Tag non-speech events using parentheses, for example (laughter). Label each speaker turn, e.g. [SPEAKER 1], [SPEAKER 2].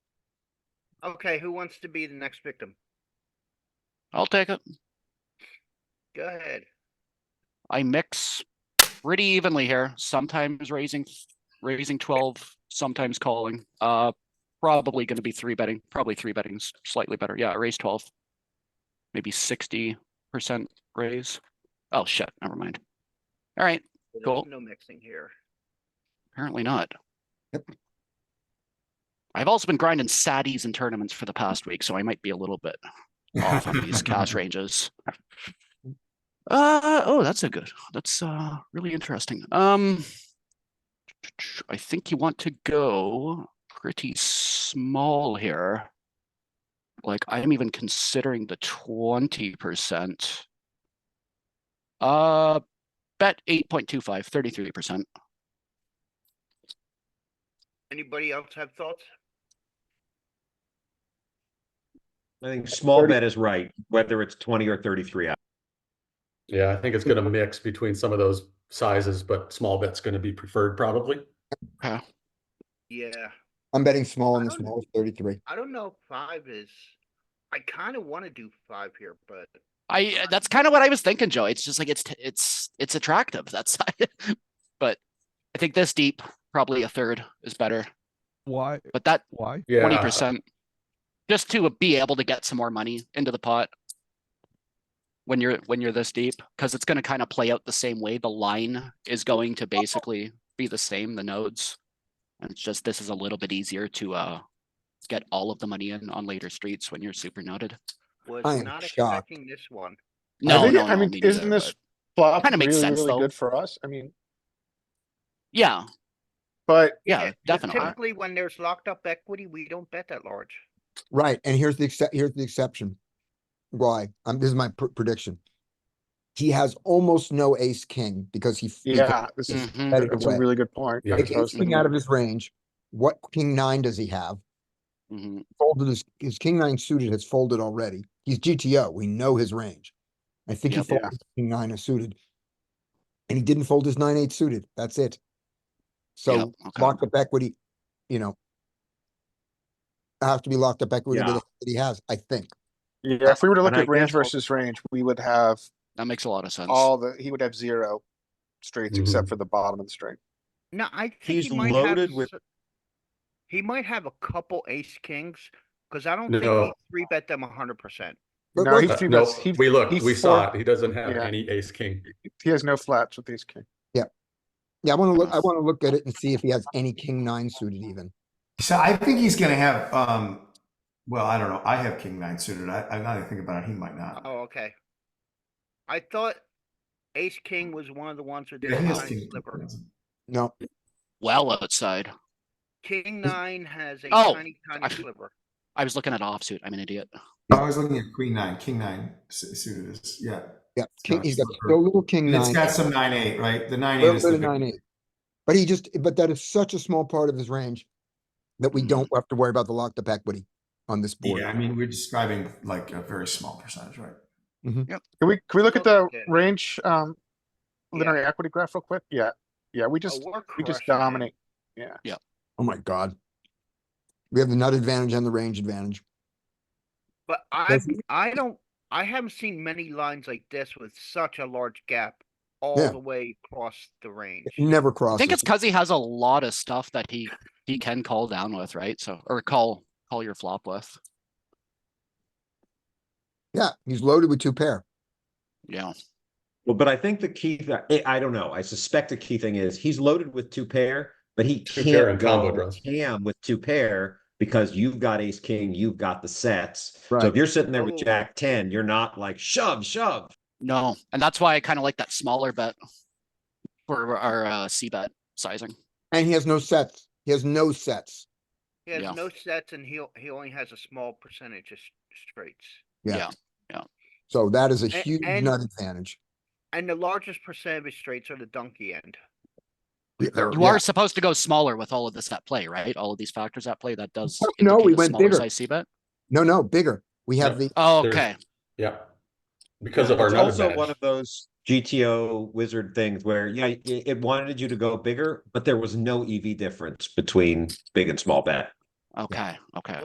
[SPEAKER 1] Okay, who wants to be the next victim?
[SPEAKER 2] I'll take it.
[SPEAKER 1] Go ahead.
[SPEAKER 2] I mix pretty evenly here, sometimes raising, raising twelve, sometimes calling. Uh, probably gonna be three betting, probably three betting s- slightly better. Yeah, raise twelve. Maybe sixty percent raise. Oh shit, never mind. All right,
[SPEAKER 1] There's
[SPEAKER 2] Cool.
[SPEAKER 1] No mixing here.
[SPEAKER 2] apparently not. I've also been grinding saddies in tournaments for the past week, so I might be a little bit off on these cash ranges. Uh oh, that's a good. That's uh really interesting. Um I think you want to go pretty small here. Like I'm even considering the 20%. Uh bet 8.25, 33%.
[SPEAKER 1] Anybody else have thoughts?
[SPEAKER 3] I think small bet is right, whether it's twenty or thirty-three. I-
[SPEAKER 4] Yeah, I think it's
[SPEAKER 3] (laughs)
[SPEAKER 4] gonna mix between some of those sizes, but small bet's gonna be preferred probably.
[SPEAKER 1] Yeah,
[SPEAKER 5] I'm betting small on the
[SPEAKER 1] I don't-
[SPEAKER 5] small is thirty-three.
[SPEAKER 1] I don't know. if Five is, I kind of want to do five here, but
[SPEAKER 2] I uh, that's kind of what I was thinking, Joe. It's just like it's t- it's it's attractive. That's (laughs) but I think this deep probably a third is better.
[SPEAKER 6] Why?
[SPEAKER 2] But that
[SPEAKER 6] Why?
[SPEAKER 4] Yeah.
[SPEAKER 2] twenty percent, just to uh, be able to get some more money into the pot when you're when you're this deep, because it's going to kind of play out the same way. The line is going to basically be the same. The nodes, and it's just this is a little bit easier to uh get all of the money in on later streets when you're super noted.
[SPEAKER 1] was
[SPEAKER 5] I am
[SPEAKER 1] not
[SPEAKER 5] shocked.
[SPEAKER 1] expecting this one.
[SPEAKER 2] No,
[SPEAKER 7] I, think,
[SPEAKER 2] no,
[SPEAKER 7] I
[SPEAKER 2] no,
[SPEAKER 7] mean,
[SPEAKER 2] me neither,
[SPEAKER 7] isn't this
[SPEAKER 2] but-
[SPEAKER 7] flop
[SPEAKER 2] Kinda
[SPEAKER 7] really,
[SPEAKER 2] makes sense,
[SPEAKER 7] really
[SPEAKER 2] though.
[SPEAKER 7] good for us? I mean,
[SPEAKER 2] yeah,
[SPEAKER 7] but
[SPEAKER 2] yeah,
[SPEAKER 1] 'cause
[SPEAKER 2] definitely.
[SPEAKER 1] Typically, when there's locked up equity, we don't bet that large.
[SPEAKER 5] Right, and here's the exce- here's the exception. Why? Um, this is my pr- prediction. He has almost no ace king because he. he
[SPEAKER 7] yeah, this is
[SPEAKER 2] Mhm.
[SPEAKER 5] bet it
[SPEAKER 7] that's
[SPEAKER 5] away.
[SPEAKER 7] a really good point.
[SPEAKER 4] Yeah.
[SPEAKER 7] Yeah,
[SPEAKER 5] Takes ace king out of his range. What king nine does he have?
[SPEAKER 2] Mhm.
[SPEAKER 5] Folded his, his king nine suited has folded already. He's GTO. We know his range. I think he
[SPEAKER 2] Yep.
[SPEAKER 5] folded his king nine is suited. And he didn't fold his nine eight suited. That's it.
[SPEAKER 2] Yeah,
[SPEAKER 5] So
[SPEAKER 2] okay.
[SPEAKER 5] locked up equity, you know. Have to be locked up equity
[SPEAKER 3] Yeah.
[SPEAKER 5] that he has, I think.
[SPEAKER 7] if we were to look
[SPEAKER 3] And I
[SPEAKER 7] at range
[SPEAKER 3] guess-
[SPEAKER 7] versus range, we would have
[SPEAKER 2] That makes a lot of sense.
[SPEAKER 7] all the he would have zero straights except
[SPEAKER 4] Mhm.
[SPEAKER 7] for the bottom of the string.
[SPEAKER 1] No, I think
[SPEAKER 3] He's
[SPEAKER 1] he might have
[SPEAKER 3] loaded with-
[SPEAKER 1] s- He might have a couple ace kings, because I don't
[SPEAKER 4] No.
[SPEAKER 1] think three bet them a hundred percent.
[SPEAKER 5] But
[SPEAKER 7] No,
[SPEAKER 5] look,
[SPEAKER 7] he
[SPEAKER 4] Uh,
[SPEAKER 7] three
[SPEAKER 4] No,
[SPEAKER 7] bets- he-
[SPEAKER 4] we looked,
[SPEAKER 7] he
[SPEAKER 4] we saw
[SPEAKER 7] four-
[SPEAKER 4] it. He doesn't have
[SPEAKER 7] Yeah.
[SPEAKER 4] any ace king.
[SPEAKER 7] He has no flats with these king.
[SPEAKER 5] Yeah, I wanna look, I wanna look at it and see if he has any king nine suited even.
[SPEAKER 8] So I think he's going to have. um Well, I don't know. I have king nine suited. I, I'm not even thinking about it. He might not.
[SPEAKER 1] Oh, okay. I thought ace king was one of the ones with the
[SPEAKER 8] yeah, he has
[SPEAKER 1] high
[SPEAKER 8] king.
[SPEAKER 1] sliver.
[SPEAKER 5] No,
[SPEAKER 2] well outside.
[SPEAKER 1] King nine has a
[SPEAKER 2] Oh,
[SPEAKER 1] tiny,
[SPEAKER 2] I-
[SPEAKER 1] tiny sliver.
[SPEAKER 2] I was looking at offsuit. I'm an idiot.
[SPEAKER 8] I was looking at queen nine. King nine su- suited is yeah.
[SPEAKER 5] yeah, king,
[SPEAKER 8] not
[SPEAKER 5] he's got
[SPEAKER 8] super.
[SPEAKER 5] so little king
[SPEAKER 8] And
[SPEAKER 5] nine.
[SPEAKER 8] it's got some nine eight, right? The nine eight
[SPEAKER 5] Little
[SPEAKER 8] is
[SPEAKER 5] bit
[SPEAKER 8] the
[SPEAKER 5] of nine
[SPEAKER 8] big-
[SPEAKER 5] eight. But he just, but that is such a small part of his range that we
[SPEAKER 2] Mhm.
[SPEAKER 5] don't have to worry about the locked up equity on this board.
[SPEAKER 8] Mm-hmm. Yeah, I mean we're describing like a very small percentage, right?
[SPEAKER 7] Can we can we look at the
[SPEAKER 1] Okay.
[SPEAKER 7] range um
[SPEAKER 1] Yeah.
[SPEAKER 7] linear equity graph real quick? Yeah, yeah, we
[SPEAKER 1] A
[SPEAKER 7] just
[SPEAKER 1] war
[SPEAKER 7] we just
[SPEAKER 1] crush, man.
[SPEAKER 7] dominate.
[SPEAKER 5] Oh my god. We have the nut advantage and the range advantage.
[SPEAKER 1] But I,
[SPEAKER 5] That's-
[SPEAKER 1] I don't, I haven't seen many lines like this with such a large gap all
[SPEAKER 5] Yeah.
[SPEAKER 1] the way across the range.
[SPEAKER 5] It Never
[SPEAKER 2] I
[SPEAKER 5] crosses.
[SPEAKER 2] think it's because he has a lot of stuff that he he can call down with, right? So or call call your flop with.
[SPEAKER 5] Yeah, he's loaded with two pair.
[SPEAKER 2] Yeah.
[SPEAKER 3] Well, but I think the key that I don't know. I suspect the key thing is he's loaded with two pair, but he
[SPEAKER 4] Two pair
[SPEAKER 3] can't
[SPEAKER 4] and combo
[SPEAKER 3] go
[SPEAKER 4] draws.
[SPEAKER 3] ham with two pair because you've got ace king, you've got the sets. So
[SPEAKER 5] Right.
[SPEAKER 3] if you're sitting there
[SPEAKER 1] Oh.
[SPEAKER 3] with jack ten, you're not like shove, shove.
[SPEAKER 2] No, and that's why I kind of like that smaller bet for our uh, C bet sizing.
[SPEAKER 5] And he has no sets. He has no sets.
[SPEAKER 1] He has
[SPEAKER 2] Yeah.
[SPEAKER 1] no sets and he'll, he only has a small percentage of s- straights.
[SPEAKER 5] Yeah.
[SPEAKER 2] Yeah, yeah.
[SPEAKER 5] So that is a
[SPEAKER 1] A-
[SPEAKER 5] huge
[SPEAKER 1] and-
[SPEAKER 5] nut advantage.
[SPEAKER 1] And the largest percent of his straights are the donkey end.
[SPEAKER 5] Yeah, there-
[SPEAKER 2] You
[SPEAKER 5] yeah.
[SPEAKER 2] are supposed to go smaller with all of this at play, right? All of these factors at play. That does
[SPEAKER 5] Fuck Oh, no,
[SPEAKER 2] indicate
[SPEAKER 5] we
[SPEAKER 2] a
[SPEAKER 5] went
[SPEAKER 2] smaller
[SPEAKER 5] bigger.
[SPEAKER 2] size C bet.
[SPEAKER 5] No, no, bigger. We have
[SPEAKER 4] Yeah.
[SPEAKER 5] the,
[SPEAKER 2] Oh,
[SPEAKER 4] There's-
[SPEAKER 2] okay.
[SPEAKER 4] Yeah. Because of our
[SPEAKER 3] It's
[SPEAKER 4] nut
[SPEAKER 3] also one
[SPEAKER 4] advantage.
[SPEAKER 3] of those GTO wizard things where, yeah, it, it wanted you to go E bigger, but there was no EV difference between big and small bet.
[SPEAKER 2] Okay. Okay.